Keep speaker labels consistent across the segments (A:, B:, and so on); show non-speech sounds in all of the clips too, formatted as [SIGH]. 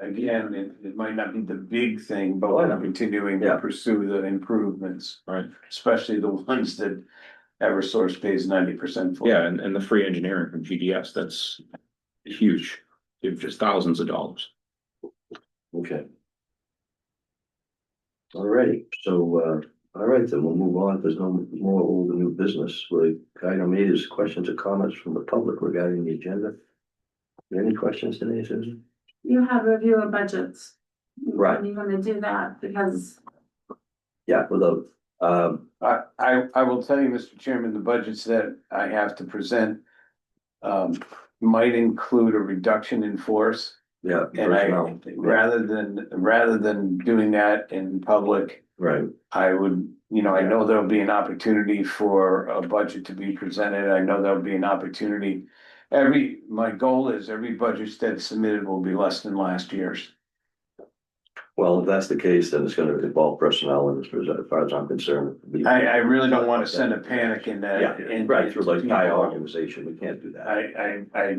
A: Again, it, it might not be the big thing, but we're continuing
B: Yeah.
A: to pursue the improvements.
C: Right.
A: Especially the [LAUGHS] ones that Eversource pays ninety percent for.
C: Yeah, and, and the free engineering from GDS, that's huge, it's just thousands of dollars.
B: Okay. Alrighty, so, uh, alright, then we'll move on. If There's no more old and new business. The item eight is questions or comments from the public regarding the agenda. Any questions today, Susan?
D: You have review of budgets.
B: Right.
D: And you're gonna do that because
B: Yeah, without, um,
A: I, I, I will tell you, Mr. Chairman, the budgets that I have to present. Um, might include a reduction in force.
B: yeah.
A: And I,
B: personnel.
A: rather than, rather than doing that in public,
B: Right,
A: I would, you know, I know there'll be an opportunity for a budget to be presented. I know there'll be an opportunity. Every, my goal is every budget that's submitted will be less than last year's.
B: well, if that's the case, then it's gonna involve personnel and as far as I'm concerned. it'd be-
A: I, I really don't want to send a panic in that.
B: Yeah,
A: in-
B: right, through like high
A: people.
B: organization, we can't do that.
A: I, I, I,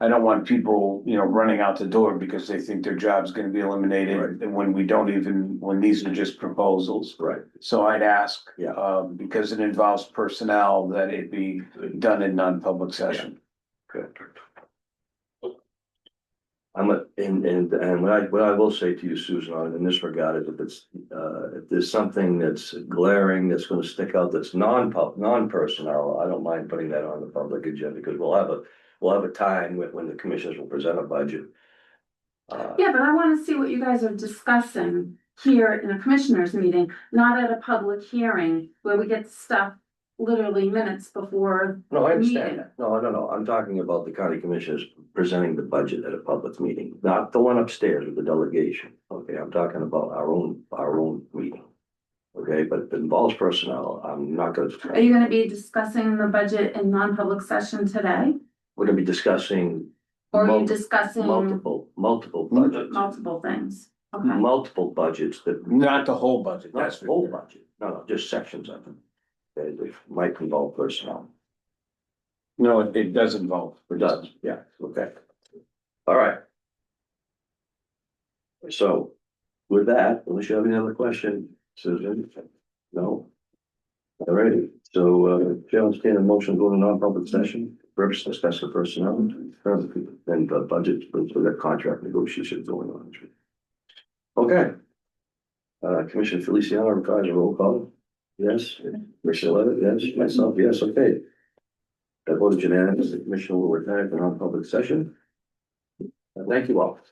A: I don't want people, you know, running out the door because they think their job's gonna be eliminated.
B: Right.
A: And when we don't even, when these are just proposals.
B: Right,
A: So I'd ask,
B: Yeah.
A: um, because it involves personnel, that it be done in non-public session.
B: Good. I'm a, and, and, and what I, what I will say to you, Susan, on- in this regard, is if it's, uh, if there's something that's glaring, that's gonna stick out, that's non-pub, non-personnel, I don't mind putting that on the public agenda, because we'll have a, we'll have a time when, when the commissioners will present a budget. Uh,
D: Yeah, but I wanna see what you guys are discussing here in a commissioners meeting, not at a public hearing where we get stuff literally minutes before.
B: No, I understand that. No, no, no. I'm talking about the county commissioners presenting the budget at a public meeting, not the one upstairs with the delegation. Okay, I'm talking about our own, our own meeting. Okay, but if it involves personnel, I'm not gonna,
D: Are you gonna be discussing the budget in non-public session today?
B: we're gonna be discussing
D: Or are
B: Mul-
D: you um, discussing
B: multiple, multiple budgets.
D: multiple things? Okay,
B: Multiple budgets that.
A: Not the whole budget,
B: Not
A: that's.
B: the whole budget, no, no, just sections of them. That that might involve personnel.
A: No, it, it does involve.
B: It does, yeah, okay. All right. So with that, unless you have any other question, Susan? No? All righty. so uh, Chair will stand a motion to go to non-public session, purpose discuss the personnel, and the budget for for the contract negotiations going on. Okay. Uh, Commissioner Feliciano requires a roll call. Yes, Commissioner Levitt, yes, myself, yes, okay. That was unanimous. The commission will return to non-public session. Uh, Thank you all.